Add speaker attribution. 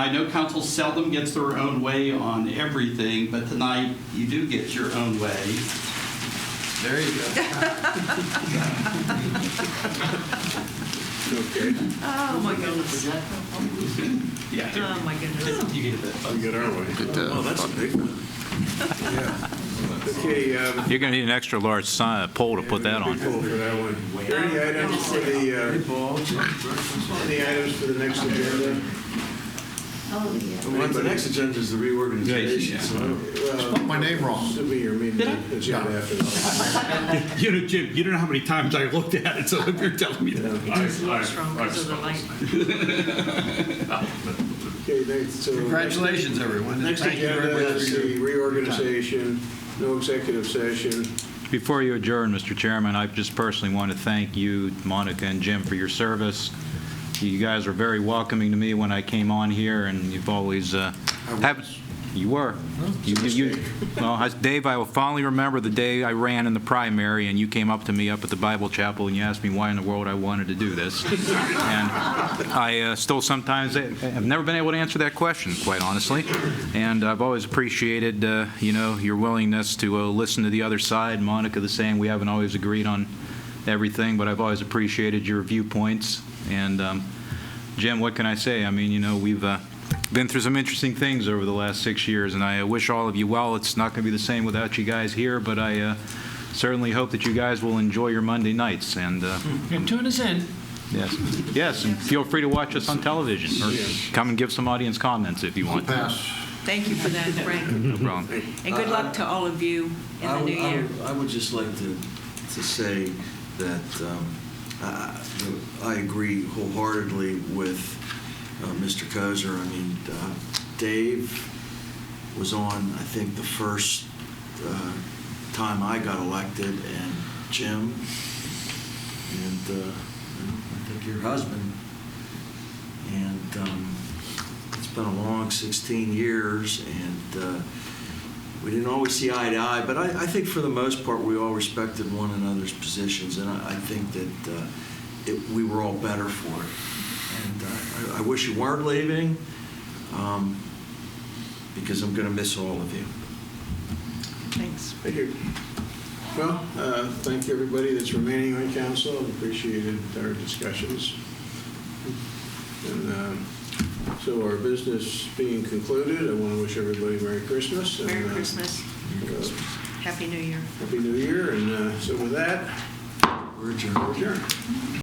Speaker 1: I know council seldom gets their own way on everything, but tonight you do get your own way.
Speaker 2: There you go.
Speaker 3: Okay,
Speaker 4: Oh, my goodness.
Speaker 1: Yeah.
Speaker 4: Oh, my goodness.
Speaker 1: You get that.
Speaker 3: we get our way.
Speaker 2: It, uh,
Speaker 3: Oh, that's a big one. Yeah. Okay. um,
Speaker 5: You're going to need an extra large sign, pole to put that on.
Speaker 3: Big poll for that one. Are there Any items for the, uh, any items for the next agenda?
Speaker 6: Well, the next agenda is the
Speaker 1: Yeah.
Speaker 6: reorganization, so I don't-
Speaker 3: Spelled
Speaker 2: my name wrong.
Speaker 3: Assuming you're meeting the agenda after this.
Speaker 7: You know, Jim, you don't know how many times I looked at it, so if you're telling me that.
Speaker 4: It was a little strong because of the light.
Speaker 3: Okay, next, so.
Speaker 2: Congratulations, everyone.
Speaker 3: Next
Speaker 2: Thank you very
Speaker 3: agenda
Speaker 2: much for
Speaker 3: is
Speaker 2: your
Speaker 3: the reorganization, no executive session.
Speaker 5: Before you adjourn, Mr. Chairman, I just personally want to thank you, Monica and Jim, for your service. You guys were very welcoming to me when I came on here, and you've always, uh, have- you were. You- you- you- Well, I- Dave, I will fondly remember the day I ran in the primary, and you came up to me up at the Bible Chapel, and you asked me why in the world I wanted to do this. And I uh, still sometimes, I've never been able to answer that question, quite honestly. And I've always appreciated, uh, you know, your willingness to uh, listen to the other side. Monica, the same, we haven't always agreed on everything, but I've always appreciated your viewpoints. And um, Jim, what can I say? I mean, you know, we've uh, been through some interesting things over the last six years, and I uh, wish all of you well. It's not going to be the same without you guys here, but I uh, certainly hope that you guys will enjoy your Monday nights. And uh,
Speaker 8: And tune us in.
Speaker 5: Yes, yes, and feel free to watch us on television, or come and give some audience comments if you want.
Speaker 4: Thank you for that, Frank.
Speaker 5: No problem.
Speaker 4: And good luck to all of you in
Speaker 6: Uh, I
Speaker 4: the new
Speaker 6: would- I
Speaker 4: year.
Speaker 6: would- I would just like to, to say that um, I- I I agree wholeheartedly with uh, Mr. Kozer. I mean, uh, Dave was on, I think, the first uh, time I got elected, and Jim, and uh, you know, I think your husband. And um, it's been a long 16 years, and uh, we didn't always see eye to eye, but I, I think for the most part, we all respected one another's positions, and I, I think that uh, it, we were all better for it. And uh, I, I wish you weren't leaving, um, because I'm going to miss all of you.
Speaker 4: Thanks.
Speaker 3: Thank you. Well, uh, thank you, everybody that's remaining on council, appreciated our discussions. And um, so our business being concluded, I want to wish everybody Merry Christmas. and,
Speaker 4: Merry
Speaker 3: uh,
Speaker 4: Christmas.
Speaker 3: uh,
Speaker 4: Happy New Year.
Speaker 3: Happy New Year, and uh, so with that,
Speaker 6: We're adjourned.
Speaker 3: we're adjourned.